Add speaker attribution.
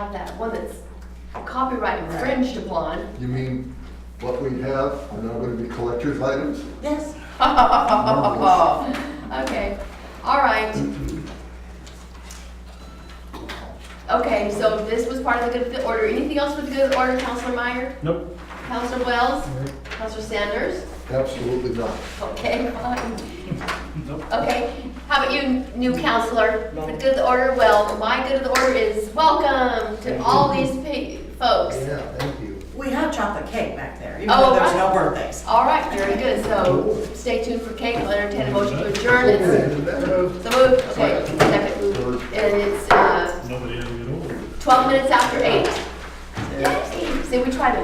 Speaker 1: have that one that's copyright infringed upon.
Speaker 2: You mean what we have are now going to be collector's items?
Speaker 1: Yes. Okay, all right. Okay, so this was part of the good of the order. Anything else with the good of the order, Counselor Meyer?
Speaker 3: Nope.
Speaker 1: Counselor Wells? Counselor Sanders?
Speaker 2: Absolutely not.
Speaker 1: Okay, fine.
Speaker 3: Nope.
Speaker 1: Okay, how about you, new counselor? For the good of the order, well, my good of the order is welcome to all these pe- folks.
Speaker 2: Yeah, thank you.
Speaker 4: We have chocolate cake back there, even
Speaker 1: Oh,
Speaker 4: though there's
Speaker 1: right.
Speaker 4: no birthdays.
Speaker 1: All right, very good, so stay tuned for cake, we'll entertain a motion to adjourn. It's
Speaker 2: Turn
Speaker 1: the move, okay, second move, and it's uh,
Speaker 3: Nobody had to get over it.
Speaker 1: 12 minutes after 8. Yay, see, we tried to